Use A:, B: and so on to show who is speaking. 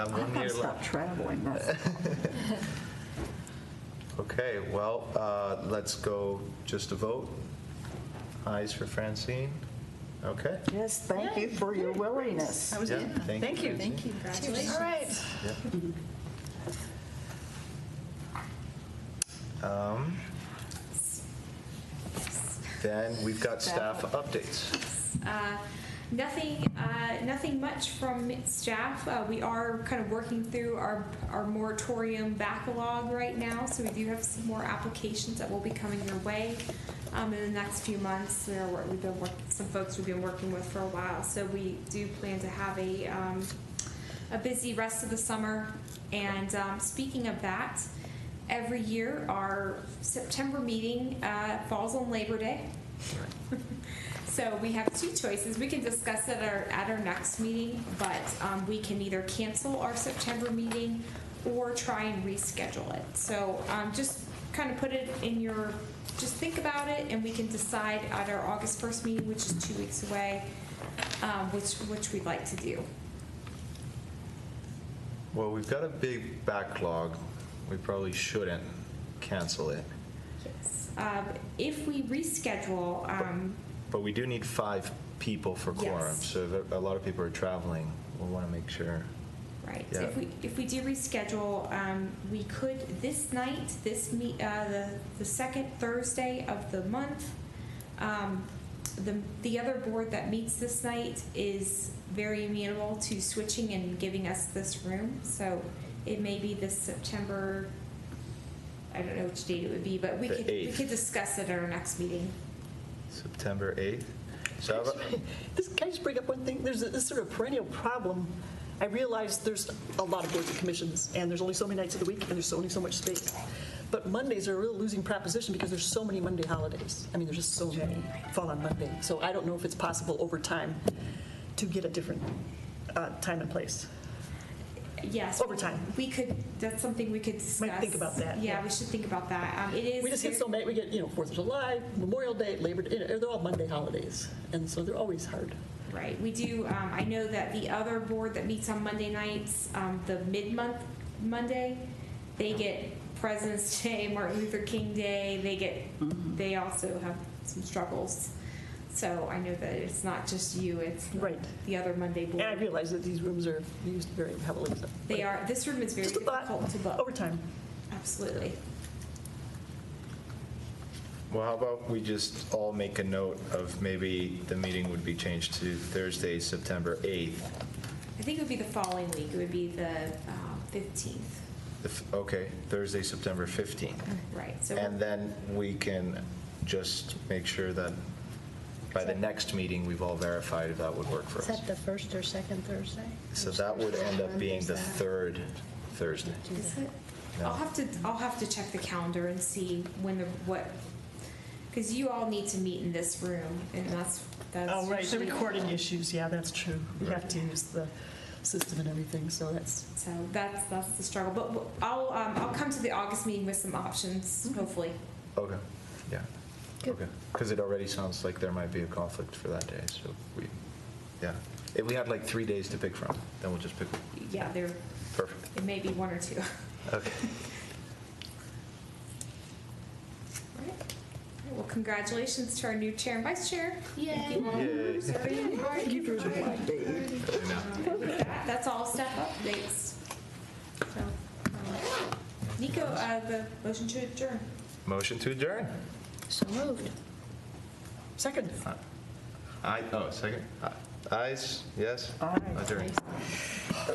A: Um,
B: I
A: One year
B: gotta stop
A: left.
B: traveling. That's-
A: Okay, well, uh, let's go just to vote. Eyes for Francine. Okay.
B: Yes, thank you for your willingness.
A: Oh, Yeah, Thank you. Francine.
C: Congratulations. All right.
A: Um, Then we've got staff updates.
D: Uh, Nothing, uh, nothing much from staff. Uh, We are kind of working through our, our moratorium backlog right now, so we do have some more applications that will be coming your way um, in the next few months. We are, wor- we've been, work- some folks we've been working with for a while, so we do plan to have a, um, a busy rest of the summer. And um, speaking of that, every year, our September meeting uh, falls on Labor Day. So we have two choices. We can discuss it at our, at our next meeting, but um, we can either cancel our September meeting or try and reschedule it. So um, just kind of put it in your, just think about it, and we can decide at our August 1st meeting, which is two weeks away, um, which, which we'd like to do.
A: Well, we've got a big backlog. We probably shouldn't cancel it.
D: Um, If we reschedule, um,
A: But we do need five people for quorum.
D: Yes.
A: So if a lot of people are traveling, we'll want to make sure.
D: Right,
A: Yeah.
D: if we, if we do reschedule, um, we could, this night, this me, uh, the, the second Thursday of the month, um, the, the other board that meets this night is very amenable to switching and giving us this room, so it may be this September, I don't know which date it would be, but we
A: The
D: could, we
A: eighth.
D: could discuss it at our next meeting.
A: September 8th. So how about-
E: This, can I just bring up one thing? There's a- this sort of perennial problem. I realize there's a lot of boards and commissions, and there's only so many nights of the week, and there's only so much space. But Mondays are a real losing proposition because there's so many Monday holidays. I mean, there's just so many fall on Monday. So I don't know if it's possible over time to get a different uh, time and place.
D: Yes.
E: Over time.
D: We could, that's something we could discuss.
E: Might think about that,
D: Yeah,
E: yeah.
D: we should think about that, um, it is.
E: We just get so many, we get, you know, Fourth of July, Memorial Day, Labor Day, you know, they're all Monday holidays, and so they're always hard.
D: Right, we do, um, I know that the other board that meets on Monday nights, um, the mid-month Monday, they get President's Day, Martin Luther King Day, they
E: Mm-hmm.
D: get, they also have some struggles. So I know that it's not just you, it's the-
E: Right.
D: the other Monday
E: And I
D: board.
E: realize that these rooms are used very heavily. so-
D: They are, this room is very
E: Just a thought,
D: difficult to
E: over
D: book,
E: time.
D: absolutely.
A: Well, how about we just all make a note of maybe the meeting would be changed to Thursday, September 8th.
D: I think it would be the following week, it would be the uh, fifteenth,
A: The f- Okay, Thursday, September 15th.
D: right, so.
A: And then we can just make sure that by the next meeting, we've all verified if that would work for
C: Is
A: us.
C: that the first or second Thursday?
A: So that would end up being the third Thursday.
D: Is it?
A: No.
D: I'll have to, I'll have to check the calendar and see when the, what, because you all need to meet in this room, and that's, that's.
E: Oh, right, the
D: usually-
E: recording issues, yeah, that's true. You have to use the system and everything, so that's,
D: So that's, that's the struggle, but w- I'll, um, I'll come to the August meeting with some options,
E: Mm-hmm.
D: hopefully.
A: Okay, yeah, okay. Because it already sounds like there might be a conflict for that day, so we, yeah. If we had like three days to pick from, then we'll just pick,
D: Yeah, there,
A: perfect.
D: it may be one or two.
A: Okay.
D: All right. Well, congratulations to our new chair and vice chair.
C: Yay.
D: You all
A: Yay.
D: are serving.
B: Thank you for the update.
A: I know.
D: And Um, with that, That's all staff updates. So, um, Nico, uh, the motion to adjourn.
A: Motion to adjourn.
C: So moved.
E: second.
A: Aye, oh, second. Ayes, yes?
B: Aye.
A: Adjourn.